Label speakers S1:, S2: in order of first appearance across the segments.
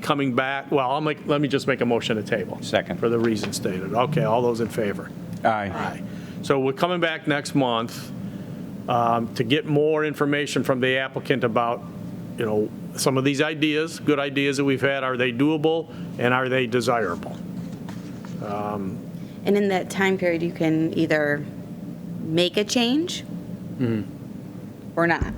S1: coming back, well, I'll make, let me just make a motion to table.
S2: Second.
S1: For the reasons stated. Okay, all those in favor?
S2: Aye.
S1: Aye. So we're coming back next month um, to get more information from the applicant about, you know, some of these ideas, good ideas that we've had, are they doable and are they desirable?
S3: And in that time period, you can either make a change or not.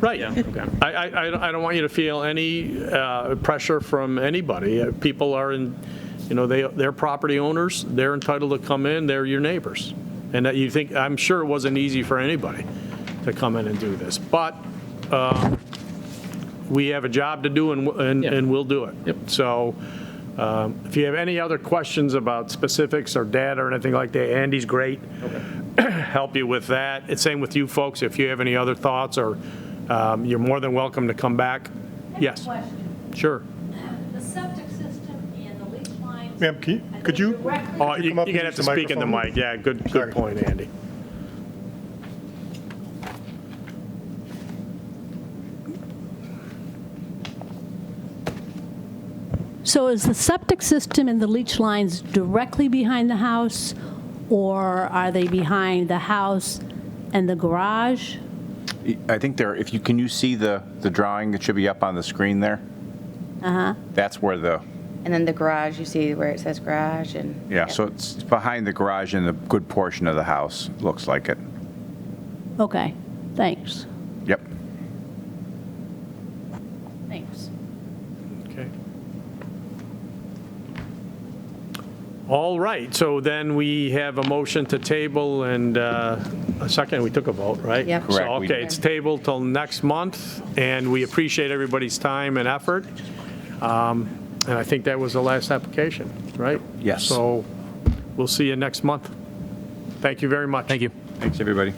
S1: Right. I, I, I don't- I don't want you to feel any uh, pressure from anybody. Uh, People are in, you know, they, they're property owners, they're entitled to come in, they're your neighbors. And that you think, I'm sure it wasn't easy for anybody to come in and do this, but um, we have a job to do and, and
S4: Yeah.
S1: and we'll do it.
S4: Yep.
S1: So um, if you have any other questions about specifics or data or anything like that, Andy's great help you with that. It's same with you folks, if you have any other thoughts, or um, you're more than welcome to come back. Yes,
S5: Question,
S1: sure.
S5: the septic system and the leach lines.
S6: Ma'am, can you-
S5: are they
S6: could you- uh,
S5: directly-
S1: Oh,
S6: you
S1: you-
S6: come
S1: You're
S6: up
S1: going to
S6: and
S1: have
S6: use
S1: to
S6: the
S1: speak in the
S6: microphone?
S1: mic, yeah, good,
S6: Sorry.
S1: good point, Andy.
S7: So is the septic system and the leach lines directly behind the house, or are they behind the house and the garage?
S2: I think there, if you, can you see the, the drawing that should be up on the screen there?
S7: Uh-huh.
S2: That's where the,
S3: And then the garage, you see where it says garage and.
S2: yeah, so it's behind the garage and a good portion of the house, looks like it.
S7: Okay, thanks.
S2: Yep.
S7: Thanks.
S1: Okay. All right, so then we have a motion to table and uh, a second, we took a vote, right?
S3: Yep.
S1: So,
S2: Correct, we
S1: okay,
S2: did.
S1: it's tabled till next month, and we appreciate everybody's time and effort. Um, And I think that was the last application, right?
S2: Yes.
S1: So we'll see you next month. Thank you very much.
S4: Thank you.
S2: Thanks, everybody.